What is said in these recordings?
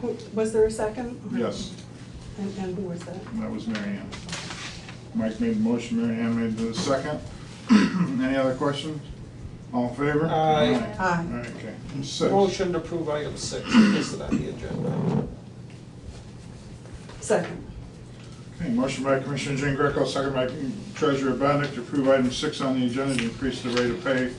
Who- Was there a second? Yes, And, and who was that? that was Mary Ann. Mike made the motion, Mary Ann made the second. Any other questions? All in favor? Aye. Aye. All right, Okay, six. Motion to approve item six is listed on the agenda. Second. Okay, motion by Commissioner Jean Greco, second by Treasurer Benedict to approve item six on the agenda to increase the rate of pay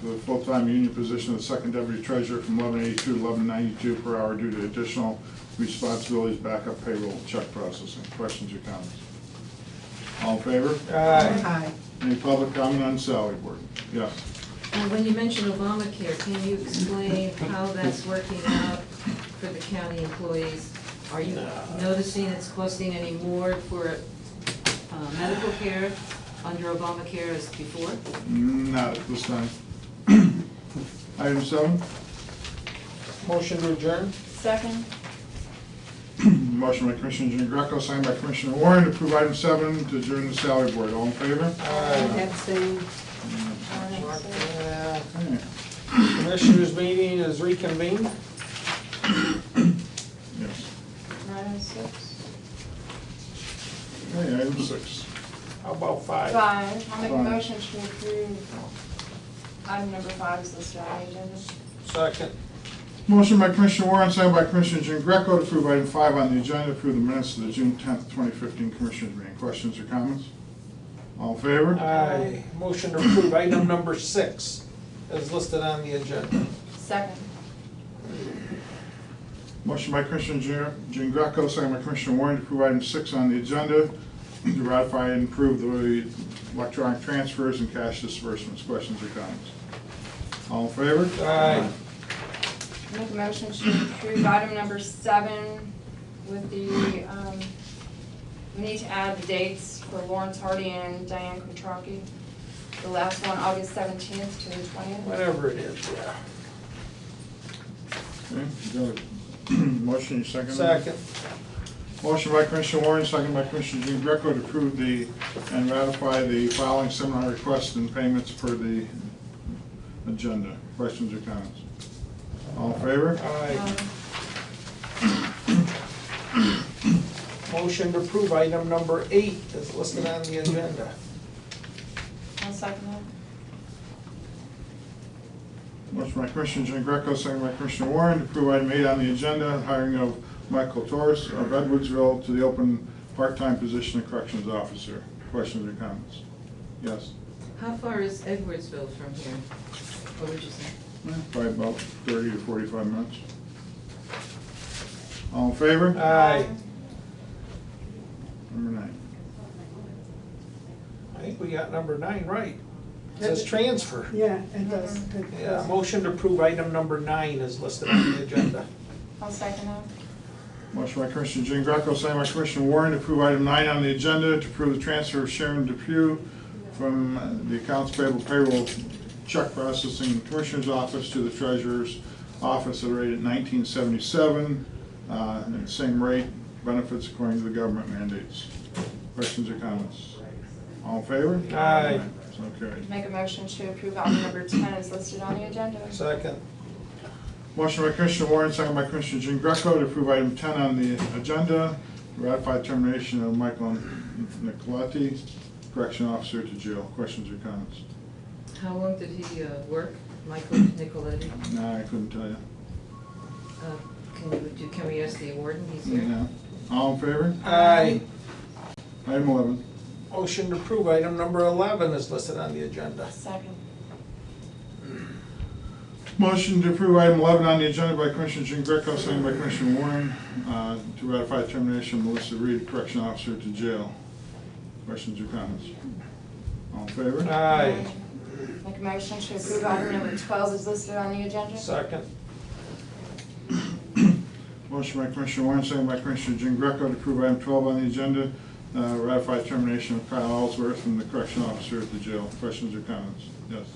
for the full-time union position of the second deputy treasurer from eleven eighty-two to eleven ninety-two per hour due to additional responsibilities, backup payroll, check processing. Questions or comments? All in favor? Aye. Aye. Any public comment on salary board? Yes. And when you mention Obamacare, can you explain how that's working out for the county employees? Are you noticing it's costing any more for uh, medical care under Obamacare as before? Not at this time. Item seven, Motion to adjourn? Second. motion by Commissioner Jean Greco, signed by Commissioner Warren to approve item seven to adjourn the salary board. All in favor? Aye. Abstain. Uh, Okay. Commissioners meeting is reconvened. Yes. Right on six. Okay, item six. How about five? Five, I'll make a Five. motion to approve item number five is listed on the agenda. Second. Motion by Commissioner Warren, second by Commissioner Jean Greco to approve item five on the agenda, approve the minutes of the June tenth, twenty fifteen Commissioners meeting. Questions or comments? All in favor? Aye. Motion to approve item number six is listed on the agenda. Second. Motion by Commissioner Jean- Jean Greco, second by Commissioner Warren to approve item six on the agenda, to ratify and approve the electronic transfers and cash disbursements. Questions or comments? All in favor? Aye. I'll Make a motion to approve item number seven with the, um, we need to add the dates for Lawrence Hardy and Diane Kutraki. The last one, August seventeenth to the twentieth. Whatever it is, yeah. Okay, you got a motion, you second? it? Second. Motion by Commissioner Warren, second by Commissioner Jean Greco to approve the, and ratify the following seminar requests and payments per the agenda. Questions or comments? All in favor? Um, Aye. Motion to approve item number eight is listed on the agenda. I'll second that. Motion by Commissioner Jean Greco, second by Commissioner Warren to approve item eight on the agenda, hiring of Michael Torres of Edwardsville to the open part-time position of corrections officer. Questions or comments? Yes? How far is Edwardsville from here? What would you say? Probably about thirty to forty-five minutes. All in favor? Aye. Number nine. I think we got number nine right. It says transfer. Yeah, it does. It Yeah, does. motion to approve item number nine is listed on the agenda. I'll second that. Motion by Commissioner Jean Greco, second by Commissioner Warren to approve item nine on the agenda to approve the transfer of Sharon Depew from uh, the accounts payable payroll check processing commissioner's office to the treasurer's office at a rate of nineteen seventy-seven, uh, and the same rate, benefits according to the government mandates. Questions or comments? All in favor? Aye. So carried. Make a motion to approve item number ten is listed on the agenda. Second. Motion by Commissioner Warren, second by Commissioner Jean Greco to approve item ten on the agenda, ratify termination of Michael Nicoletti, correction officer to jail. Questions or comments? How long did he uh, work, Michael Nicoletti? Nah, I couldn't tell you. Uh, Can you, do- can we ask the warden, he's here? No. All in favor? Aye. Item eleven. Motion to approve item number eleven is listed on the agenda. Second. Motion to approve item eleven on the agenda by Commissioner Jean Greco, second by Commissioner Warren, uh, to ratify termination of Melissa Reed, correction officer to jail. Questions or comments? All in favor? Aye. Make a motion to approve item number twelve is listed on the agenda. Second. Motion by Commissioner Warren, second by Commissioner Jean Greco to approve item twelve on the agenda, uh, ratify termination of Kyle Ellsworth from the correction officer at the jail. Questions or comments? Yes.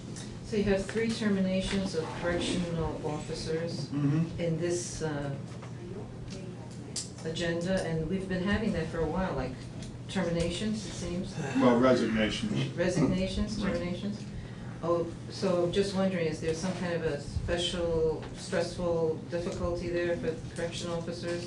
So you have three terminations of correctional officers. Mm-hmm. in this uh, agenda, and we've been having that for a while, like terminations, it seems, Well, resignations. resignations, terminations. Oh, so just wondering, is there some kind of a special stressful difficulty there for correction officers?